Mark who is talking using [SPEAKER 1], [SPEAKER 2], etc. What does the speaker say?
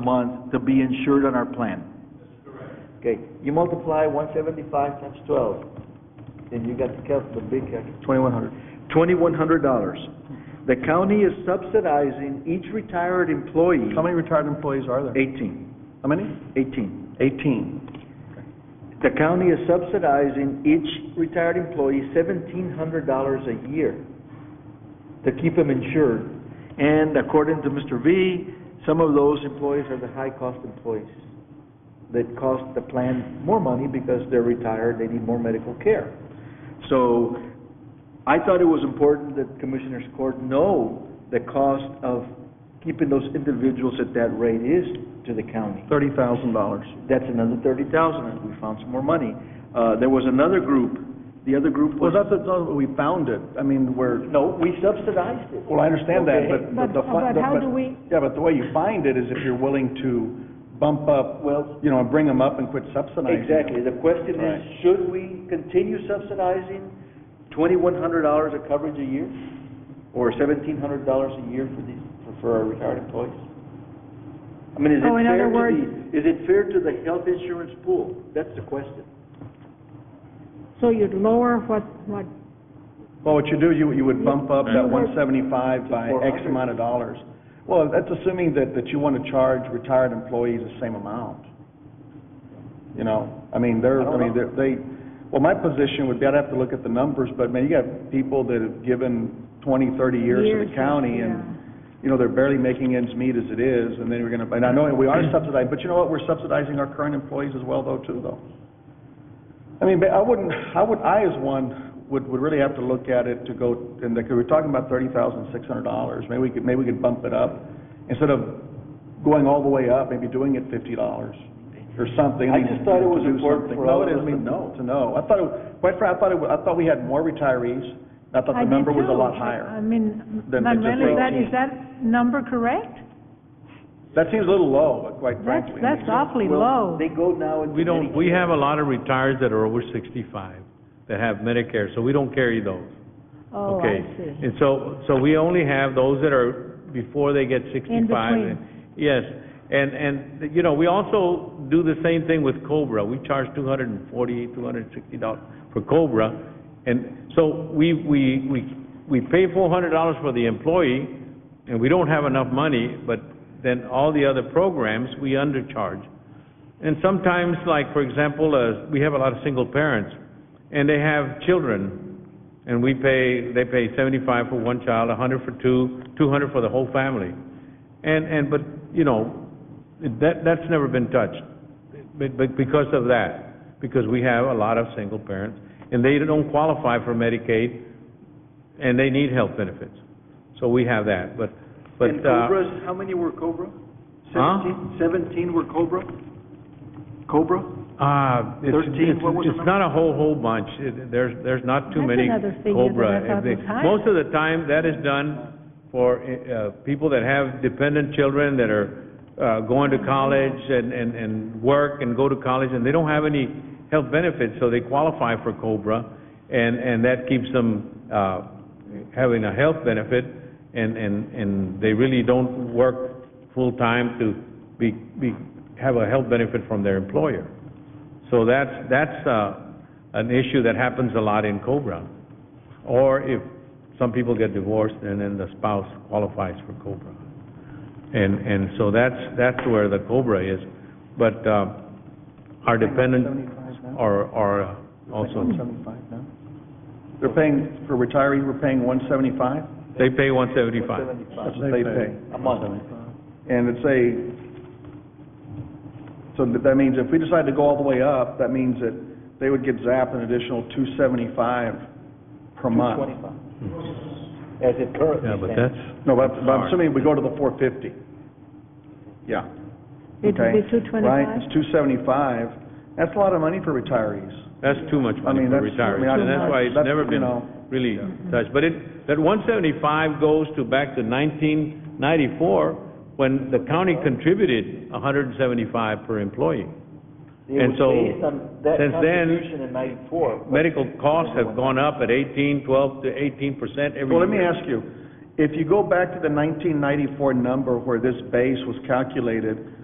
[SPEAKER 1] month to be insured on our plan.
[SPEAKER 2] Okay, you multiply one seventy-five times twelve, then you got to count the big,
[SPEAKER 1] Twenty-one hundred.
[SPEAKER 2] twenty-one hundred dollars. The county is subsidizing each retired employee,
[SPEAKER 1] How many retired employees are there?
[SPEAKER 2] eighteen,
[SPEAKER 1] How many?
[SPEAKER 2] eighteen.
[SPEAKER 1] Eighteen.
[SPEAKER 2] The county is subsidizing each retired employee seventeen hundred dollars a year to keep them insured. And according to Mr. V, some of those employees are the high-cost employees that cost the plan more money because they're retired, they need more medical care. So I thought it was important that Commissioners Court know the cost of keeping those individuals at that rate is to the county.
[SPEAKER 1] Thirty thousand dollars.
[SPEAKER 2] That's another thirty thousand, and we found some more money. Uh, there was another group, the other group
[SPEAKER 1] Well,
[SPEAKER 2] was,
[SPEAKER 1] that's, that's, how we found it. I mean, we're,
[SPEAKER 2] no, we subsidized it.
[SPEAKER 1] well, I understand that,
[SPEAKER 2] Okay.
[SPEAKER 1] but- but
[SPEAKER 3] But-
[SPEAKER 1] the... fun-
[SPEAKER 3] but
[SPEAKER 1] the-
[SPEAKER 3] how do we-
[SPEAKER 1] Yeah, but the way you find it is if you're willing to bump up,
[SPEAKER 2] Well-
[SPEAKER 1] you know, and bring them up and quit subsidizing them.
[SPEAKER 2] Exactly, the question is,
[SPEAKER 1] Right.
[SPEAKER 2] should we continue subsidizing twenty-one hundred dollars of coverage a year? Or seventeen hundred dollars a year for these, for, for our retired employees? I mean, is it
[SPEAKER 3] Oh, in
[SPEAKER 2] fair
[SPEAKER 3] other
[SPEAKER 2] to
[SPEAKER 3] words-
[SPEAKER 2] the, is it fair to the health insurance pool? That's the question.
[SPEAKER 3] So you'd lower what, what,
[SPEAKER 1] Well, what you do, you, you would bump up that
[SPEAKER 3] Mhm.
[SPEAKER 1] one seventy-five by X
[SPEAKER 2] 400.
[SPEAKER 1] amount of dollars. Well, that's assuming that, that you want to charge retired employees the same amount. You know, I mean, they're,
[SPEAKER 2] I don't
[SPEAKER 1] I mean,
[SPEAKER 2] know.
[SPEAKER 1] they're- they, well, my position would be, I'd have to look at the numbers, but man, you got people that have given twenty, thirty years to the
[SPEAKER 3] Years,
[SPEAKER 1] county and,
[SPEAKER 3] yeah.
[SPEAKER 1] you know, they're barely making ends meet as it is, and then we're gonna, and I know we are subsidizing, but you know what, we're subsidizing our current employees as well though, too, though. I mean, but I wouldn't, I would, I as one would, would really have to look at it to go, and like, we're talking about thirty thousand six hundred dollars, maybe we could, maybe we could bump it up. Instead of going all the way up, maybe doing it fifty dollars or something.
[SPEAKER 2] I just thought it was
[SPEAKER 1] To do
[SPEAKER 2] important
[SPEAKER 1] something.
[SPEAKER 2] for all of us
[SPEAKER 1] No, it is, I mean,
[SPEAKER 2] to know.
[SPEAKER 1] to know. I thought, it- quite frankly, I thought it, wa- I thought we had more retirees. I thought
[SPEAKER 3] I
[SPEAKER 1] the
[SPEAKER 3] did
[SPEAKER 1] number was a
[SPEAKER 3] too.
[SPEAKER 1] lot
[SPEAKER 3] I
[SPEAKER 1] higher.
[SPEAKER 3] mean,
[SPEAKER 1] than the
[SPEAKER 3] Manuel,
[SPEAKER 1] just
[SPEAKER 3] is that,
[SPEAKER 1] eighteen.
[SPEAKER 3] is that number correct?
[SPEAKER 1] That seems a little low, quite
[SPEAKER 3] That's,
[SPEAKER 1] frankly.
[SPEAKER 3] that's awfully
[SPEAKER 2] Well,
[SPEAKER 3] low.
[SPEAKER 2] They go now into.
[SPEAKER 4] We don't,
[SPEAKER 2] Medicare.
[SPEAKER 4] we have a lot of retirees that are over sixty-five that have Medicare, so we don't carry those.
[SPEAKER 3] Oh, I
[SPEAKER 4] Okay.
[SPEAKER 3] see.
[SPEAKER 4] And so, so we only have those that are before they get sixty-five.
[SPEAKER 3] between.
[SPEAKER 4] Yes, and, and, you know, we also do the same thing with Cobra. We charge two hundred and forty, two hundred and sixty dollars for Cobra. And so we, we, we, we pay four hundred dollars for the employee, and we don't have enough money, but then all the other programs, we undercharge. And sometimes, like, for example, uh, we have a lot of single parents, and they have children, and we pay, they pay seventy-five for one child, a hundred for two, two hundred for the whole family. And, and, but, you know, that, that's never been touched, but, but because of that, because we have a lot of single parents, and they don't qualify for Medicaid, and they need health benefits. So we have that, but, but,
[SPEAKER 2] And
[SPEAKER 4] uh,
[SPEAKER 2] Cobras, how many were Cobra?
[SPEAKER 4] Huh?
[SPEAKER 2] Seventeen? Seventeen were Cobra? Cobra?
[SPEAKER 4] Uh, it's,
[SPEAKER 2] 13,
[SPEAKER 4] it's,
[SPEAKER 2] what was the
[SPEAKER 4] it's not a whole, whole bunch. It- There's, there's not too
[SPEAKER 3] That's
[SPEAKER 4] many
[SPEAKER 3] another figure
[SPEAKER 4] Cobra.
[SPEAKER 3] that I thought
[SPEAKER 4] If they-
[SPEAKER 3] was high.
[SPEAKER 4] Most of the time, that is done for, uh, people that have dependent children that are, uh, going to college and, and, and work and go to college, and they don't have any health benefits, so they qualify for Cobra, and, and that keeps them, uh, having a health benefit, and, and, and they really don't work full-time to be, be, have a health benefit from their employer. So that's, that's, uh, an issue that happens a lot in Cobra. Or if some people get divorced and then the spouse qualifies for Cobra. And, and so that's, that's where the Cobra is. But, uh, our dependents are, are uh, also,
[SPEAKER 1] Seventy-five now? They're paying, for retirees, we're paying one seventy-five?
[SPEAKER 4] they pay one seventy-five.
[SPEAKER 1] That's what they pay.
[SPEAKER 2] A month.
[SPEAKER 1] And it's a, so that that means if we decide to go all the way up, that means that they would get zapped an additional two seventy-five per month.
[SPEAKER 2] Twenty-five. As it currently
[SPEAKER 4] Yeah,
[SPEAKER 2] stands.
[SPEAKER 4] but that's,
[SPEAKER 1] No, but, but I'm
[SPEAKER 4] Sorry.
[SPEAKER 1] assuming we go to the four fifty. Yeah.
[SPEAKER 3] It would
[SPEAKER 1] Okay.
[SPEAKER 3] be two
[SPEAKER 1] Right,
[SPEAKER 3] twenty-five?
[SPEAKER 1] it's two seventy-five. That's a lot of money for retirees.
[SPEAKER 4] that's too much money
[SPEAKER 1] mean,
[SPEAKER 4] for
[SPEAKER 1] that's- I mean,
[SPEAKER 4] retirees.
[SPEAKER 1] I-
[SPEAKER 4] And that's why it's
[SPEAKER 1] that's,
[SPEAKER 4] never
[SPEAKER 1] you
[SPEAKER 4] been
[SPEAKER 1] know.
[SPEAKER 4] really touched. But it, that one seventy-five goes to back to nineteen ninety-four, when the county contributed hundred and seventy-five per employee. and so,
[SPEAKER 2] It was based on that
[SPEAKER 4] since then,
[SPEAKER 2] contribution in ninety-four. but-
[SPEAKER 4] Medical costs have gone up at 18, 12 to 18 percent every year.
[SPEAKER 1] Well, let me ask you, if you go back to the nineteen ninety-four number where this base was calculated,